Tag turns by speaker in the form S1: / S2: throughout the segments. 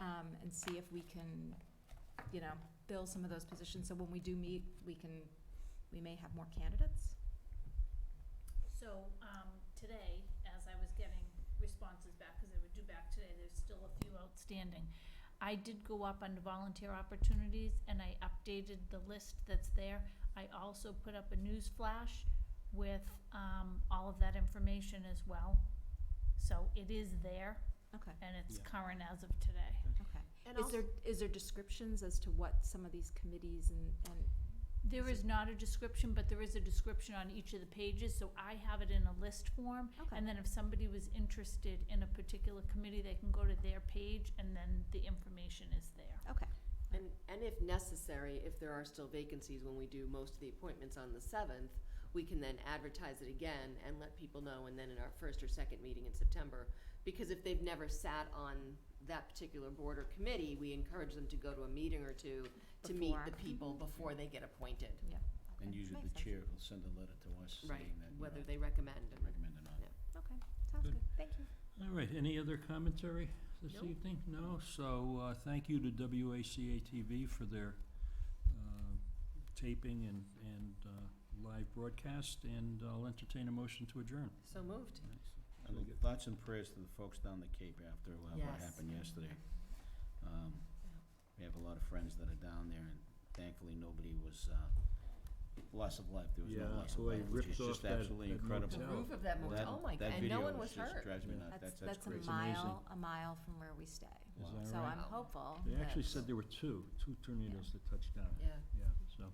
S1: um, and see if we can, you know, fill some of those positions, so when we do meet, we can, we may have more candidates.
S2: So, um, today, as I was getting responses back, because they were due back today, there's still a few outstanding. I did go up under volunteer opportunities and I updated the list that's there. I also put up a news flash with, um, all of that information as well. So it is there
S1: Okay,
S2: and it's
S3: Yeah.
S2: current as of today.
S1: okay.
S4: And
S1: Is there, is there descriptions as to what some of these committees and, and,
S2: There is not a description, but there is a description on each of the pages, so I have it in a list form.
S1: Okay.
S2: And then if somebody was interested in a particular committee, they can go to their page and then the information is there.
S1: okay,
S4: And, and if necessary, if there are still vacancies when we do most of the appointments on the seventh, we can then advertise it again and let people know, and then in our first or second meeting in September. Because if they've never sat on that particular board or committee, we encourage them to go to a meeting or two to meet the
S1: Before.
S4: people before they get appointed.
S1: yeah.
S3: And
S1: okay.
S3: usually the
S1: Makes sense.
S3: chair will send a letter to us
S4: Right,
S3: saying that, you
S4: whether
S3: know,
S4: they recommend and
S3: recommend or not.
S4: Yeah.
S1: Okay, sounds
S5: Good.
S1: good, thank you.
S5: All right, any other commentary this
S2: Nope.
S5: evening? No? So, uh, thank you to WACA-TV for their uh, taping and, and uh, live broadcast, and I'll entertain a motion to adjourn.
S4: So moved.
S3: And the Thoughts and prayers to the folks down the Cape after uh, what
S4: Yes.
S3: happened yesterday. Um, We have a lot of friends that are down there, and thankfully, nobody was, uh, loss of life, there was no
S5: Yeah,
S3: loss of
S5: the way
S3: life,
S5: it
S3: which is
S5: ripped off
S3: just
S5: that-
S3: absolutely
S5: that
S3: incredible.
S4: The
S5: Yeah.
S4: roof of that
S3: That-
S4: motel, oh my,
S3: that
S4: and no
S3: video
S4: one
S3: is
S4: was
S3: just
S4: hurt.
S3: drives me
S5: Yeah.
S3: nuts. That's, that's
S1: a
S3: crazy.
S5: amazing.
S1: mile, a mile from where we stay.
S5: Is
S3: Wow.
S5: that
S1: So
S5: right?
S1: I'm hopeful.
S5: They actually
S1: that-
S5: said there were two, two tornadoes that touched down.
S4: Yeah.
S5: Yeah, so,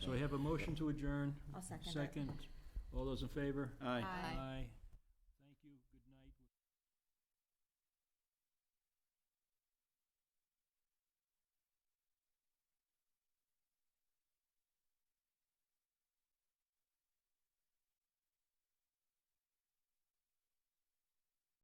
S5: so I have a motion to adjourn.
S1: I'll second it.
S5: Second. All those in favor?
S3: Aye.
S1: Aye.
S5: Aye.